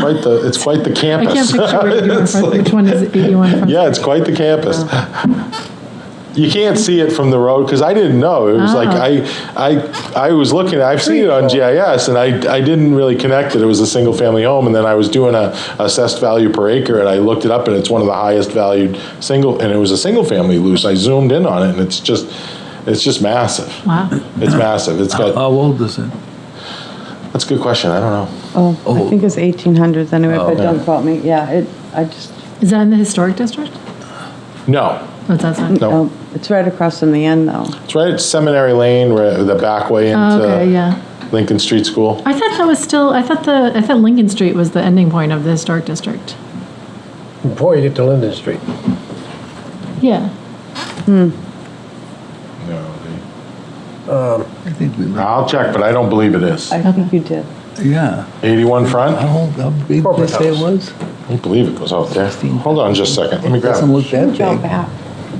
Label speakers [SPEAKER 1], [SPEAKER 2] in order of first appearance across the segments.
[SPEAKER 1] Quite the, it's quite the
[SPEAKER 2] I can't
[SPEAKER 1] campus.
[SPEAKER 2] picture where 81
[SPEAKER 1] It's
[SPEAKER 2] Front,
[SPEAKER 1] like-
[SPEAKER 2] which one is 81 Front?
[SPEAKER 1] Yeah, it's quite the campus. You can't see it from the road, because I didn't know. It was like,
[SPEAKER 2] Ah.
[SPEAKER 1] I, I, I was looking, I've seen it on GIS, and I, I didn't really connect that it was a single-family home, and then I was doing a assessed value per acre, and I looked it up, and it's one of the highest valued single, and it was a single-family loose. I zoomed in on it, and it's just, it's just massive.
[SPEAKER 2] Wow.
[SPEAKER 1] It's massive. It's got,
[SPEAKER 3] How old is it?
[SPEAKER 1] that's a good question. I don't know.
[SPEAKER 4] Oh,
[SPEAKER 3] Oh.
[SPEAKER 4] I think it's 1800s anyway, but
[SPEAKER 3] Oh.
[SPEAKER 4] don't quote me. Yeah, it, I just,
[SPEAKER 2] Is that in the historic district?
[SPEAKER 1] No,
[SPEAKER 2] Oh, that's not.
[SPEAKER 1] No.
[SPEAKER 4] oh, it's right across from the end though.
[SPEAKER 1] it's right at Seminary Lane, where the back way
[SPEAKER 2] Oh, okay,
[SPEAKER 1] into
[SPEAKER 2] yeah.
[SPEAKER 1] Lincoln Street School.
[SPEAKER 2] I thought that was still, I thought the, I thought Lincoln Street was the ending point of the historic district.
[SPEAKER 5] Before you get to Linden Street.
[SPEAKER 2] Yeah.
[SPEAKER 1] No, they-
[SPEAKER 3] I think we,
[SPEAKER 1] I'll check, but I don't believe it is.
[SPEAKER 4] I think you did.
[SPEAKER 3] yeah.
[SPEAKER 1] 81
[SPEAKER 3] How
[SPEAKER 1] Front?
[SPEAKER 3] old, how big did they
[SPEAKER 5] Corporate
[SPEAKER 3] say it
[SPEAKER 5] house.
[SPEAKER 3] was?
[SPEAKER 1] I don't believe it goes out there. Hold on just a second, let me
[SPEAKER 3] It
[SPEAKER 1] grab
[SPEAKER 3] doesn't
[SPEAKER 1] it.
[SPEAKER 3] look that
[SPEAKER 4] Go
[SPEAKER 3] big.
[SPEAKER 4] back.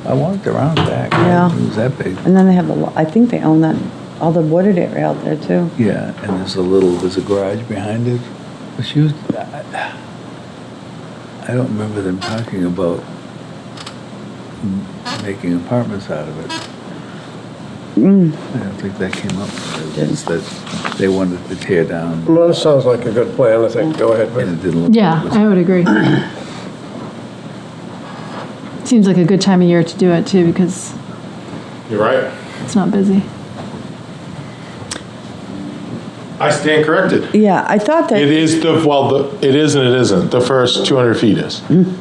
[SPEAKER 3] I walked around back.
[SPEAKER 4] Yeah.
[SPEAKER 3] It was that big.
[SPEAKER 4] And then they have the, lo- I think they own that, all the wooded area out there too.
[SPEAKER 3] Yeah, and there's a little, there's a garage behind it. But she was, I I don't remember them talking about m- making apartments out of it.
[SPEAKER 4] Mm.
[SPEAKER 3] I don't think that came up. It was just that they wanted to tear down
[SPEAKER 5] Well, that sounds like a good plan, I think, go ahead
[SPEAKER 3] and
[SPEAKER 5] with
[SPEAKER 3] it didn't look.
[SPEAKER 2] Yeah,
[SPEAKER 3] it was-
[SPEAKER 2] I would agree. Seems like a good time of year to do it too, because
[SPEAKER 1] You're right.
[SPEAKER 2] it's not busy.
[SPEAKER 1] I stand corrected.
[SPEAKER 4] Yeah, I thought
[SPEAKER 1] It
[SPEAKER 4] that,
[SPEAKER 1] is the, well, the it is and it isn't. The first 200 feet is. And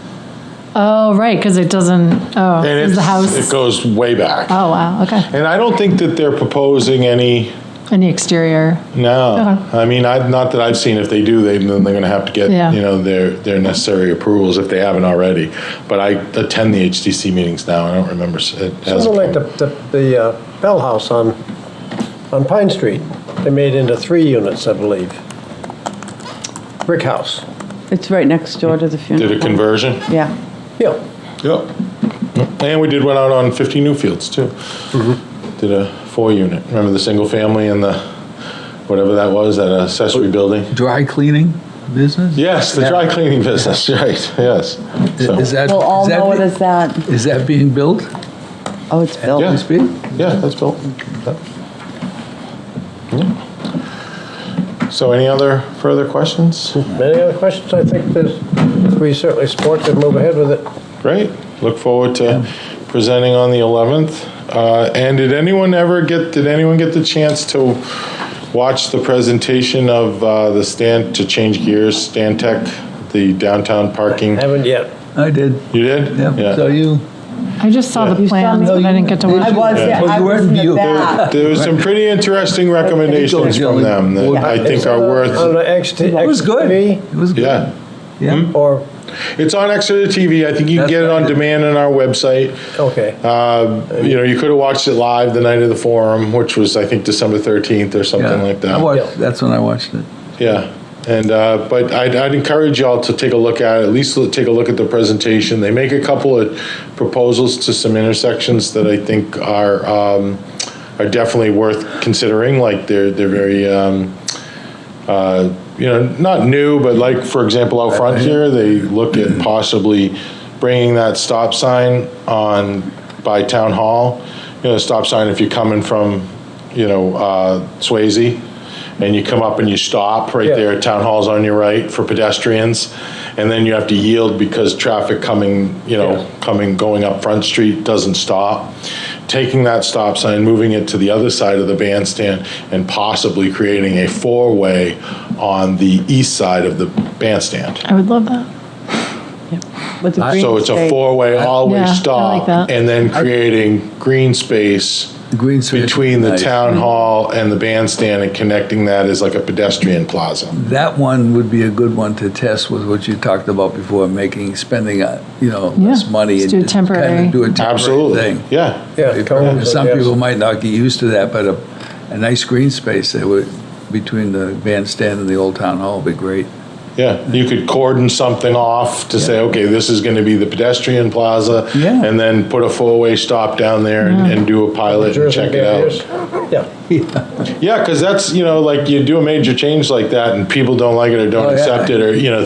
[SPEAKER 2] Oh, right, because it doesn't, oh, is
[SPEAKER 1] it's,
[SPEAKER 2] the
[SPEAKER 1] it
[SPEAKER 2] house.
[SPEAKER 1] goes way back.
[SPEAKER 2] Oh, wow, okay.
[SPEAKER 1] And I don't think that they're proposing any,
[SPEAKER 2] And the exterior,
[SPEAKER 1] no.
[SPEAKER 2] Okay.
[SPEAKER 1] I mean, I, not that I've seen, if they do, they, then they're gonna have to get,
[SPEAKER 2] Uh-huh. Yeah.
[SPEAKER 1] you know, their, their necessary approvals if they haven't already. But I attend the HTC meetings now, I don't remember. s- it
[SPEAKER 5] it.
[SPEAKER 1] hasn't
[SPEAKER 5] Something like the,
[SPEAKER 1] come-
[SPEAKER 5] the, the uh, Bell House on, on Pine Street. They made into three units, I believe. Brick house,
[SPEAKER 4] it's right next door to the funeral.
[SPEAKER 1] Did a
[SPEAKER 4] home.
[SPEAKER 1] conversion?
[SPEAKER 4] Yeah.
[SPEAKER 5] yeah.
[SPEAKER 1] Yep. Mm-hmm. And we did one out on 50 Newfields, too. Did a four-unit. Remember the single family and the, whatever that was, that accessory building?
[SPEAKER 3] Dry cleaning business?
[SPEAKER 1] Yes, the dry cleaning business, right, yes. So,
[SPEAKER 3] Is that,
[SPEAKER 4] We'll all
[SPEAKER 3] is
[SPEAKER 4] know it
[SPEAKER 3] that,
[SPEAKER 4] as that.
[SPEAKER 3] is that being built?
[SPEAKER 4] Oh, it's built.
[SPEAKER 1] Yeah.
[SPEAKER 3] As we speak?
[SPEAKER 1] Yeah, that's built. Yep. Yeah. So any other further questions?
[SPEAKER 5] Any other questions? I think there's, we certainly support to move ahead with it.
[SPEAKER 1] Great. Look forward to presenting on the 11th. Uh, And did anyone ever get, did anyone get the chance to watch the presentation of uh, the stand, to change gears, Stantec, the downtown parking?
[SPEAKER 5] Haven't yet.
[SPEAKER 3] I did.
[SPEAKER 1] You did?
[SPEAKER 3] Yeah, so you,
[SPEAKER 2] I just saw the
[SPEAKER 4] You saw
[SPEAKER 2] plans,
[SPEAKER 4] me?
[SPEAKER 2] but I didn't get to
[SPEAKER 4] I
[SPEAKER 2] watch.
[SPEAKER 4] was, yeah,
[SPEAKER 3] Well,
[SPEAKER 4] I
[SPEAKER 3] you
[SPEAKER 4] was
[SPEAKER 3] weren't
[SPEAKER 4] in the
[SPEAKER 3] mute.
[SPEAKER 4] back.
[SPEAKER 1] There was some pretty interesting recommendations from them that I think are
[SPEAKER 5] On
[SPEAKER 1] worth,
[SPEAKER 5] the XT.
[SPEAKER 3] it was good. It was good.
[SPEAKER 1] yeah.
[SPEAKER 3] Yeah.
[SPEAKER 5] Or,
[SPEAKER 1] It's on Exeter TV. I think you can get it on demand on our website.
[SPEAKER 5] okay.
[SPEAKER 1] Uh, You know, you could have watched it live the night of the forum, which was, I think, December 13th or something
[SPEAKER 3] Yeah.
[SPEAKER 1] like that.
[SPEAKER 3] I
[SPEAKER 5] Yeah.
[SPEAKER 3] watched, that's when I watched it.
[SPEAKER 1] Yeah, and, uh, but I'd, I'd encourage y'all to take a look at, it, at least look- take a look at the presentation. They make a couple of proposals to some intersections that I think are, um, are definitely worth considering, like they're, they're very, um, uh, you know, not new, but like, for example, out front here, they look at possibly bringing that stop sign on, by Town Hall, you know, stop sign if you're coming from, you know, uh, Swayze, and you come up and you stop right
[SPEAKER 5] Yeah.
[SPEAKER 1] there, Town Hall's on your right for pedestrians, and then you have to yield because traffic coming, you know, coming, going up Front Street doesn't stop. Taking that stop sign, moving it to the other side of the bandstand, and possibly creating a four-way on the east side of the bandstand.
[SPEAKER 2] I would love that.
[SPEAKER 4] With the green
[SPEAKER 1] So it's a
[SPEAKER 4] space.
[SPEAKER 1] four-way,
[SPEAKER 2] Yeah, I
[SPEAKER 1] always
[SPEAKER 2] like
[SPEAKER 1] stop,
[SPEAKER 2] that.
[SPEAKER 1] and then creating green space
[SPEAKER 3] The green space.
[SPEAKER 1] between the
[SPEAKER 3] Nice. Mm-hmm.
[SPEAKER 1] town hall and the bandstand and connecting that as like a pedestrian plaza.
[SPEAKER 3] That one would be a good one to test with what you talked about before, making, spending, uh, you know,
[SPEAKER 2] Yeah,
[SPEAKER 3] less money.
[SPEAKER 2] let's do
[SPEAKER 3] and just kinda
[SPEAKER 2] temporary.
[SPEAKER 3] Do a temporary
[SPEAKER 1] Absolutely,
[SPEAKER 3] thing.
[SPEAKER 1] yeah.
[SPEAKER 5] Yeah,
[SPEAKER 3] If-
[SPEAKER 5] cones,
[SPEAKER 3] Some
[SPEAKER 5] yes.
[SPEAKER 3] people might not get used to that, but a, a nice green space that would, between the bandstand and the old town hall would be great.
[SPEAKER 1] Yeah, you could cordon something off to say, okay, this is going to be the pedestrian plaza.
[SPEAKER 3] Yeah.
[SPEAKER 1] And then put a four-way stop down there and and do a pilot and
[SPEAKER 5] Jersey
[SPEAKER 1] check it
[SPEAKER 5] barriers.
[SPEAKER 1] out.
[SPEAKER 5] Yeah.
[SPEAKER 1] Yeah, because that's, you know, like you do a major change like that and people don't like it or
[SPEAKER 3] Oh,
[SPEAKER 1] don't
[SPEAKER 3] yeah.
[SPEAKER 1] accept it or, you know,